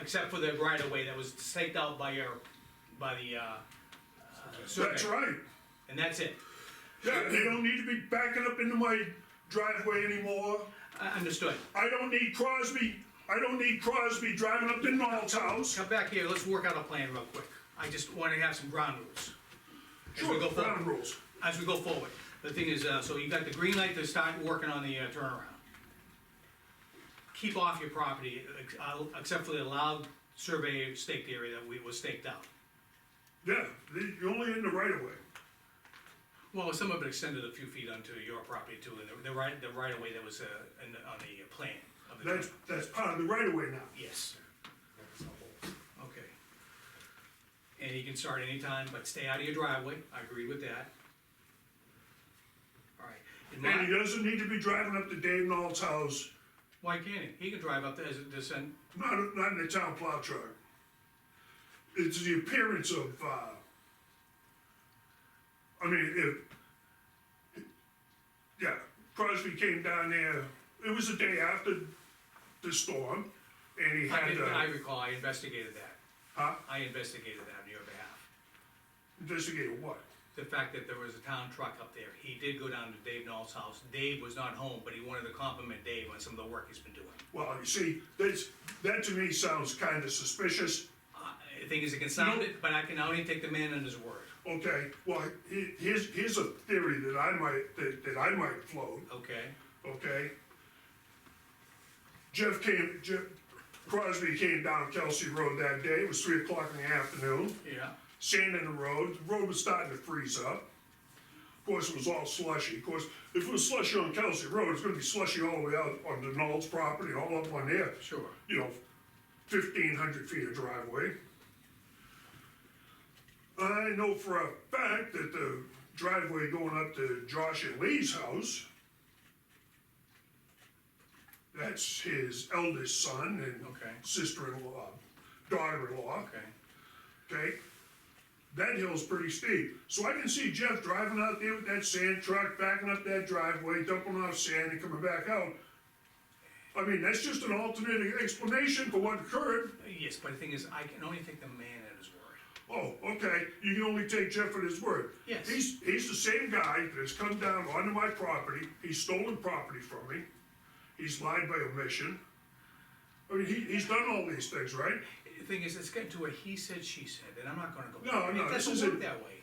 except for the right of way that was staked out by your, by the, uh, That's survey. right. and that's it. Yeah, they don't need to be backing up into my driveway anymore. I Understood. I don't need Crosby, I don't need Crosby driving up to Noel's house. Come back here, let's work out a plan real quick. I just wanna have some ground rules. As we Sure, go forward. ground rules. As we go forward. The thing is, uh, so you got the green light to start working on the uh, turnaround. Keep off your property, ex- uh, except for the allowed survey staked area that we, was staked out. Yeah, they- you're only in the right of way. Well, some of it extended a few feet onto your property too, and the- the right, the right of way that was, uh, in, the- on the plan of the. That's, that's part of the right of way now. Yes. Okay. And you can start anytime, but stay out of your driveway, I agree with that. Alright, and And he my, doesn't need to be driving up to Dave Knoll's house, why can't he? He can drive up there as a descent, not, not in the town plow truck. It's the appearance of, uh, I mean, if, yeah, Crosby came down there, it was the day after the storm, and he I had, did- I uh, recall, I investigated that, huh, I investigated that on your behalf. investigated what? The fact that there was a town truck up there, he did go down to Dave Knoll's house, Dave was not home, but he wanted to compliment Dave on some of the work he's been doing. Well, you see, that's, that to me sounds kinda suspicious, Uh, The thing is, it can sound it, but I can only take the man on his word, okay, well, he, here's, here's a theory that I might, that, that I might float. okay? okay? Jeff came, Jeff Crosby came down Kelsey Road that day, it was three o'clock in the afternoon, Yeah. sand in the road, the road was starting to freeze up. Of course, it was all slushy, of course, if it was slushy on Kelsey Road, it's gonna be slushy all the way out onto Knoll's property, all up on there. Sure. You know, fifteen hundred feet of driveway. I know for a fact that the driveway going up to Josh and Lee's house, that's his eldest son and Okay. sister-in-law, daughter-in-law, Okay. okay? That hill's pretty steep, so I can see Jeff driving out there with that sand truck, backing up that driveway, dumping off sand and coming back out. I mean, that's just an alternate explanation for what occurred, Yes, but the thing is, I can only take the man at his word. Oh, okay, you can only take Jeff at his word. Yes. He's, he's the same guy that has come down onto my property, he's stolen property from me, he's lied by omission. I mean, he, he's done all these things, right? The thing is, it's getting to a he said, she said, and I'm not gonna go. No, no, It this doesn't work isn't- that way.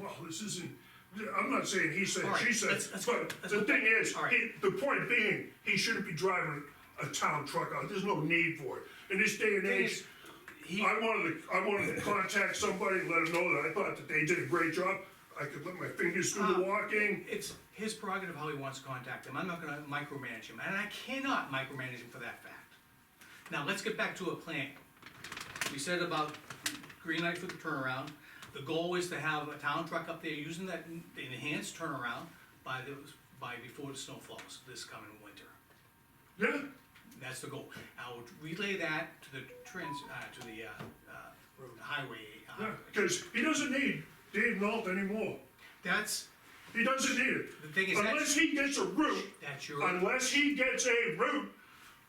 Well, this isn't, I'm not saying he said, All right, she said, let's- let's- but let's the go- thing is, all right. he- the point being, he shouldn't be driving a town truck out, there's no need for it. In this day and Thing age, is, he, I wanted to, I wanted to contact somebody, and let them know that I thought that they did a great job. I could let my fingers do Uh. the walking. it's his prerogative how he wants to contact him, I'm not gonna micromanage him, and I cannot micromanage him for that fact. Now, let's get back to a plan. We said about green light for the turnaround, the goal is to have a town truck up there using that enhanced turnaround by the, by before the snow falls this coming winter. Yeah, That's the goal. I will relay that to the trans, uh, to the, uh, uh, highway. uh, yeah, because he doesn't need Dave Nault anymore. That's, He doesn't need it. The thing is, that's- Unless he gets a route, that's your, unless he gets a route,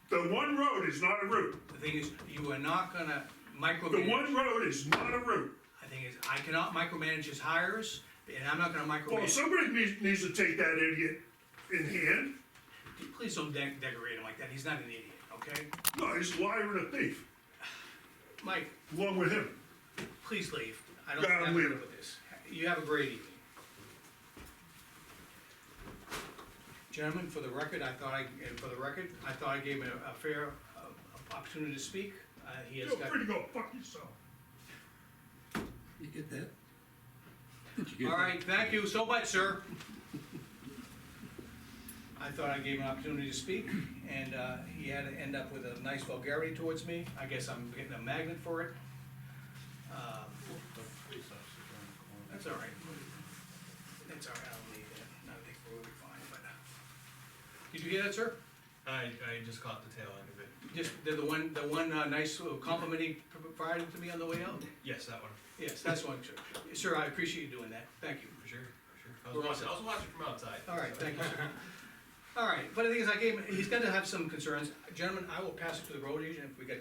the one road is not a route. the thing is, you are not gonna The micromanage. one road is not a route. The thing is, I cannot micromanage his hires, and I'm not gonna Well, micromanage. somebody needs, needs to take that idiot in hand. Please don't de- decorate him like that. He's not an idiot, okay? No, he's a liar and a thief, Mike, along with him. please leave. I don't Yeah, have I'm to deal leaving. with this. You have a great evening. Gentlemen, for the record, I thought I, and for the record, I thought I gave him a- a fair uh, opportunity to speak. Uh, He has Feel got. free to go fuck yourself. You get that? Did you get All that? right, thank you so much, sir. I thought I gave him an opportunity to speak, and uh, he had to end up with a nice vulgarity towards me. I guess I'm getting a magnet for it. Uh, That's all right. That's all right, I'll leave that. I think we'll be fine, but. uh, Did you hear that, sir? I, I just caught the tail end of it. Just the the one, the one uh, nice little compliment he provided to me on the way out? Yes, that one, Yes, that's one, sir. Sir, I appreciate you doing that. Thank you. for sure, for sure. I We're was watching, all I was watching from outside. All right, so. thank you, sir. All right, but the thing is, I gave him, he's gonna have some concerns. Gentlemen, I will pass it to the road agent if we get